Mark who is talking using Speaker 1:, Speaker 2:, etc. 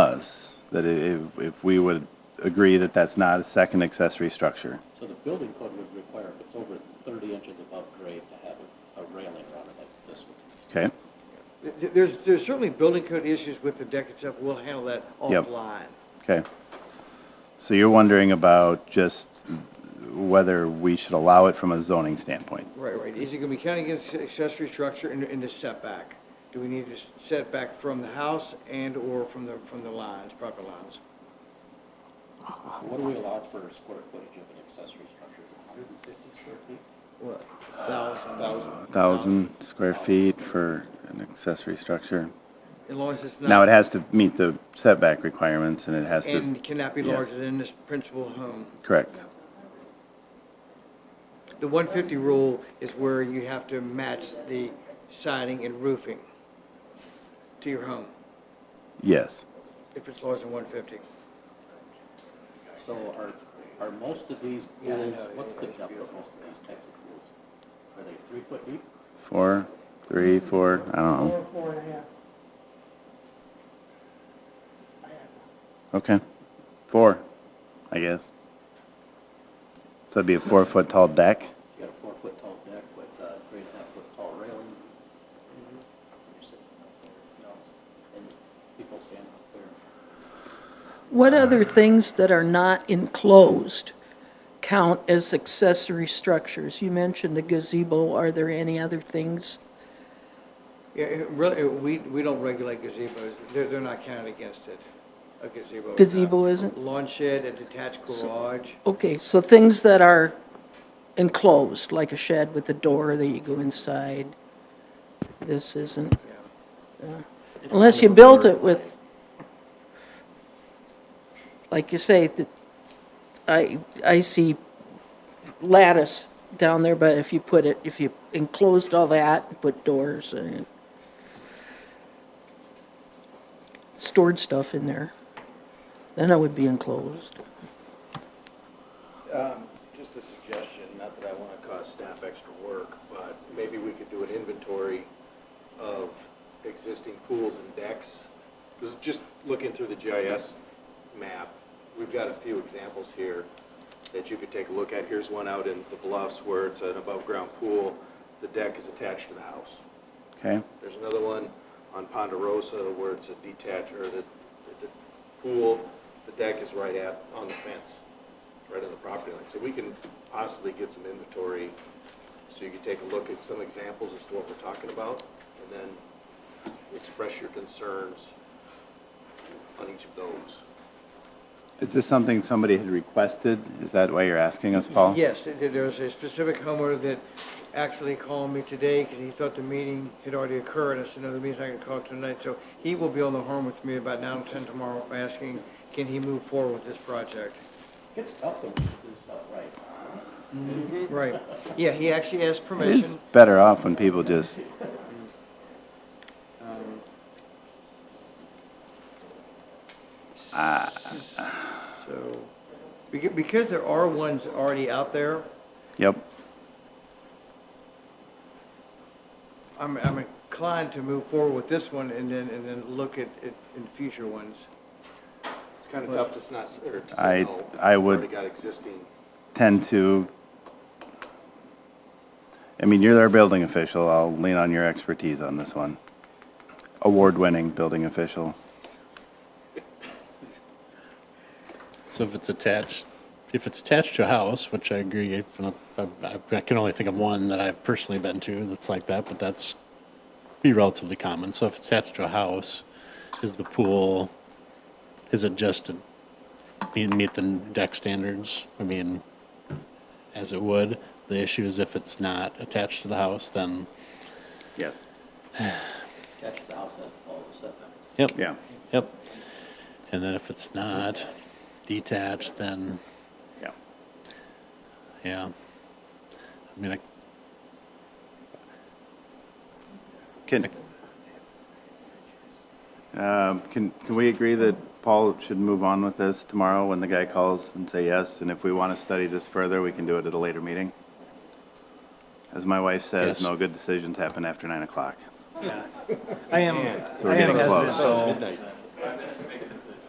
Speaker 1: us that i- if, if we would agree that that's not a second accessory structure.
Speaker 2: So the building code would require if it's over 30 inches above grade to have a- a railing around it like this one.
Speaker 1: Okay?
Speaker 3: Th- There's, there's certainly building code issues with the deck itself, we'll handle that
Speaker 1: Yep.
Speaker 3: offline.
Speaker 1: Okay. So you're wondering about just whether we should allow it from a zoning standpoint?
Speaker 3: Right, right, is it gonna be counting against accessory structure in, in the setback? Do we need to set back from the house and/or from the, from the lines, proper lines?
Speaker 2: What do we allow for square footage of an accessory structure? Is it 150 square feet?
Speaker 3: What? Thousand,
Speaker 1: 1,000
Speaker 3: thousand.
Speaker 1: square feet for an accessory structure?
Speaker 3: As long as it's not.
Speaker 1: Now, it has to meet the setback requirements, and it has to,
Speaker 3: And cannot be
Speaker 1: yeah.
Speaker 3: larger than this principal home.
Speaker 1: correct?
Speaker 3: The one fifty rule is where you have to match the siding and roofing to your home,
Speaker 1: Yes.
Speaker 3: if it's larger than one fifty.
Speaker 2: So are, are most of these
Speaker 3: Yeah, I
Speaker 2: pools,
Speaker 3: know,
Speaker 2: what's the depth of most of these types of pools? Are they three foot deep?
Speaker 1: Four, three, four, I don't know.
Speaker 4: Four, four and a half.
Speaker 1: Okay. Four, I guess. So it'd be a four-foot tall deck?
Speaker 2: You got a four foot tall deck with a three and a half foot tall railing. You're
Speaker 3: Mm-hmm.
Speaker 2: sitting up there, you know, And people stand up there.
Speaker 5: What other things that are not enclosed count as accessory structures? You mentioned a gazebo. Are there any other things?
Speaker 3: Yeah, it really, it- we, we don't regulate gazebos, they're, they're not counted against it, a gazebo. is not.
Speaker 5: Gazebo isn't?
Speaker 3: Lawn shed, a detached garage,
Speaker 5: Okay, so things that are enclosed, like a shed with a door that you go inside, this isn't.
Speaker 3: yeah.
Speaker 5: Unless you built it with, like you say, the- I, I see lattice down there, but if you put it, if you enclosed all that, put doors and stored stuff in there, then it would be enclosed.
Speaker 6: Just a suggestion, not that I want to cause staff extra work, but maybe we could do an inventory of existing pools and decks. This is just looking through the GIS map. We've got a few examples here that you could take a look at. Here's one out in the Bluffs where it's an above-ground pool. The deck is attached to the house.
Speaker 1: Okay,
Speaker 6: There's another one on Ponderosa where it's a detached, or that, it's a pool, the deck is right at, on the fence, right on the property line. So we can possibly get some inventory, so you can take a look at some examples as to what we're talking about, and then express your concerns on each of those.
Speaker 1: Is this something somebody had requested? Is that why you're asking us, Paul?
Speaker 3: Yes, there there was a specific homeowner that actually called me today because he thought the meeting had already occurred. I said, no, the meeting's not going to call tonight, so he will be on the horn with me about nine or ten tomorrow, asking, can he move forward with this project?
Speaker 2: It's tough when you do stuff right.
Speaker 5: Mm-hmm.
Speaker 3: Right, yeah, he actually asked
Speaker 1: It is
Speaker 3: permission.
Speaker 1: better off when people just,
Speaker 3: So, beca- because there are ones already out there,
Speaker 1: yep,
Speaker 3: I'm, I'm inclined to move forward with this one and then, and then look at, at, in future ones.
Speaker 6: It's kind of tough to not, s- or to
Speaker 1: I-
Speaker 6: say no.
Speaker 1: I
Speaker 6: We've
Speaker 1: would-
Speaker 6: Already got existing.
Speaker 1: tend to, I mean, you're their building official, I'll lean on your expertise on this one. Award-winning building official.
Speaker 7: So if it's attached, if it's attached to a house, which I agree, if not- I I can only think of one that I've personally been to that's like that, but that's be relatively common. So if it's attached to a house, is the pool, is it just to be- meet the deck standards? I mean, as it would. The issue is if it's not attached to the house, then,
Speaker 1: Yes.
Speaker 2: Attached to the house has to follow the setback.
Speaker 7: yep.
Speaker 1: Yeah,
Speaker 7: Yep. And then if it's not detached, then
Speaker 1: yeah.
Speaker 7: Yeah. I mean, I,
Speaker 1: Can, um, can, can we agree that Paul should move on with this tomorrow when the guy calls and say yes? And if we want to study this further, we can do it at a later meeting? As my wife says,
Speaker 7: Yes.
Speaker 1: no good decisions happen after nine o'clock.
Speaker 8: I am, I
Speaker 1: So we're
Speaker 8: am
Speaker 1: getting
Speaker 8: hesitant,
Speaker 1: close.
Speaker 8: though,
Speaker 6: Midnight.